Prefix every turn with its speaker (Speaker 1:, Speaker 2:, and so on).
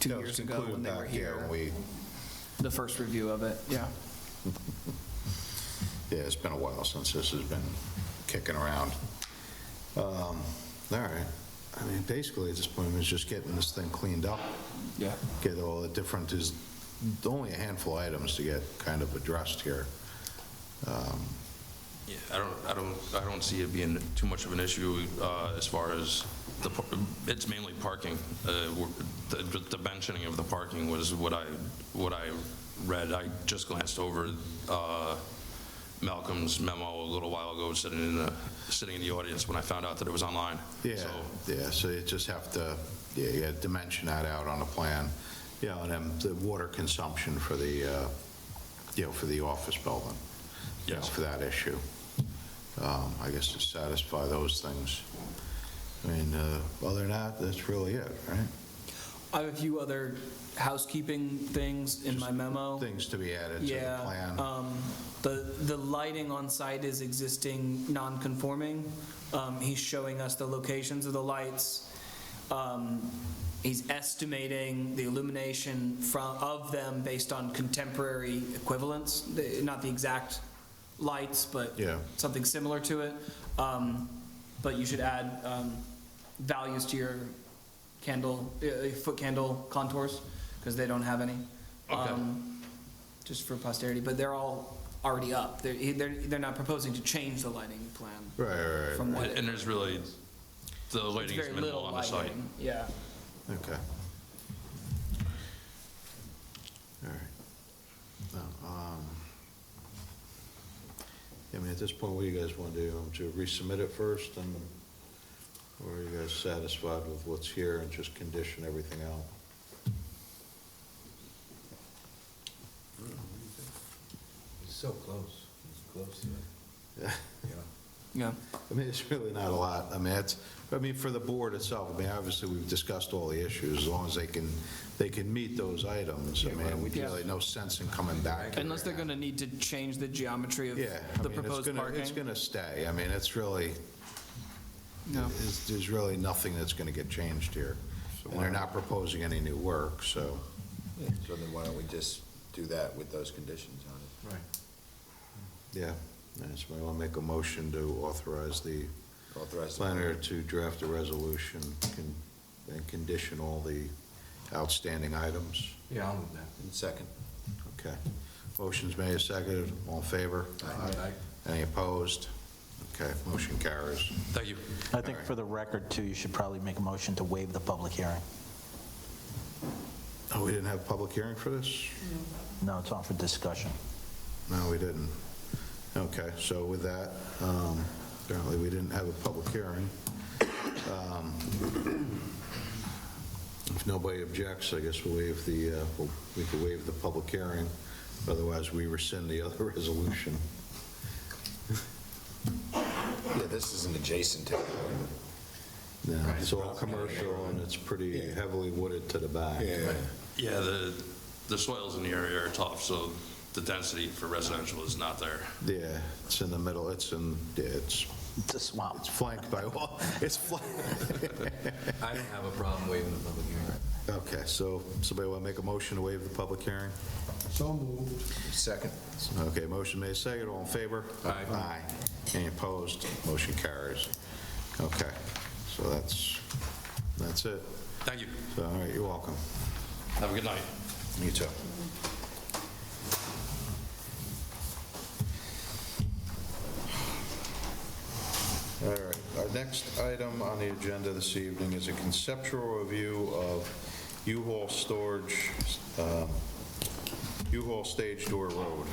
Speaker 1: two
Speaker 2: That was
Speaker 1: years ago
Speaker 2: included
Speaker 1: when they
Speaker 2: back
Speaker 1: were
Speaker 2: there
Speaker 1: here.
Speaker 2: when we-
Speaker 1: The first review of it, yeah.
Speaker 2: Yeah, it's been a while since this has been kicking around. Um, All right. I mean, basically, at this point, it's just getting this thing cleaned up,
Speaker 1: Yeah.
Speaker 2: get all the different, is only a handful of items to get kind of addressed here.
Speaker 3: Yeah, I don't, I don't, I don't see it being too much of an issue uh, as far as the, par- it's mainly parking. Uh, we're- The the dimensioning of the parking was what I, what I read. I just glanced over uh, Malcolm's memo a little while ago, sitting in the, sitting in the audience when I found out that it was online.
Speaker 2: Yeah,
Speaker 3: So,
Speaker 2: yeah, so you just have to, yeah, you gotta dimension that out on a plan. Yeah, and then the water consumption for the, uh, you know, for the office building. you know,
Speaker 3: Yes.
Speaker 2: For that issue. Um, I guess to satisfy those things. I mean, uh, other than that, that's really it, right?
Speaker 1: I have a few other housekeeping things in my memo.
Speaker 2: Things to be added to the
Speaker 1: Yeah,
Speaker 2: plan.
Speaker 1: um, the, the lighting on site is existing non-conforming. Um, he's showing us the locations of the lights. Um, he's estimating the illumination from, of them based on contemporary equivalents, the- not the exact lights, but
Speaker 2: Yeah.
Speaker 1: something similar to it. Um, but you should add, um, values to your candle, uh, foot candle contours, because they don't have any.
Speaker 3: Okay.
Speaker 1: Um, Just for posterity, but they're all already up. They're, they're, they're not proposing to change the lighting plan
Speaker 2: Right, right, right,
Speaker 1: from what.
Speaker 3: and and there's really, the
Speaker 1: it's
Speaker 3: lighting is
Speaker 1: very
Speaker 3: minimal
Speaker 1: little
Speaker 3: on the site.
Speaker 1: lighting. Yeah.
Speaker 2: okay. All right. Now, um, I mean, at this point, what do you guys want to do? Um, To resubmit it first and, or are you guys satisfied with what's here and just condition everything out?
Speaker 4: He's so close, he's close to it, you know?
Speaker 1: Yeah.
Speaker 2: I mean, it's really not a lot. I mean, it's, I mean, for the board itself, I mean, obviously, we've discussed all the issues, as long as they can, they can meet those items. I mean, we really no sense in coming back.
Speaker 1: Unless they're gonna need to change the geometry of
Speaker 2: Yeah, I
Speaker 1: the
Speaker 2: mean, it's
Speaker 1: proposed
Speaker 2: gonna, it's
Speaker 1: parking.
Speaker 2: gonna stay. I mean, it's really,
Speaker 1: No.
Speaker 2: it's- there's really nothing that's gonna get changed here. And they're not proposing any new work, so.
Speaker 5: So then why don't we just do that with those conditions on it?
Speaker 2: Right. Yeah, and somebody wanna make a motion to authorize the
Speaker 5: Authorize the
Speaker 2: planner to draft a resolution con- and condition all the outstanding items?
Speaker 4: Yeah, I'll move that.
Speaker 5: And Second.
Speaker 2: Okay. Motion's made, seconded, all in favor?
Speaker 4: Aye.
Speaker 2: Any opposed? Okay, motion carries.
Speaker 3: Thank you.
Speaker 6: I think for the record, too, you should probably make a motion to waive the public hearing.
Speaker 2: Oh, we didn't have a public hearing for this?
Speaker 6: No, it's on for discussion.
Speaker 2: No, we didn't. Okay, so with that, um, apparently we didn't have a public hearing. Um, If nobody objects, I guess we'll waive the, uh, we'll- we could waive the public hearing, otherwise we rescind the other resolution.
Speaker 5: Yeah, this isn't adjacent to.
Speaker 2: Yeah, It's all commercial and it's pretty heavily wooded to the back.
Speaker 3: Yeah, the, the soils in the area are tough, so the density for residential is not there.
Speaker 2: Yeah, it's in the middle, it's in, yeah, it's
Speaker 6: It's a swamp.
Speaker 2: it's flanked by, wall- it's flanked.
Speaker 4: I don't have a problem waiving the public hearing.
Speaker 2: Okay, so somebody want to make a motion to waive the public hearing?
Speaker 4: So moved.
Speaker 5: Second.
Speaker 2: Okay, motion made second, all in favor?
Speaker 4: Aye.
Speaker 2: Aye. Any opposed? Motion carries. Okay, so that's, that's it.
Speaker 3: Thank you.
Speaker 2: So, all right, you're welcome.
Speaker 3: Have a good night.
Speaker 2: You too. All right, our next item on the agenda this evening is a conceptual review of U-Haul storage, um, U-Haul Stage Door Road.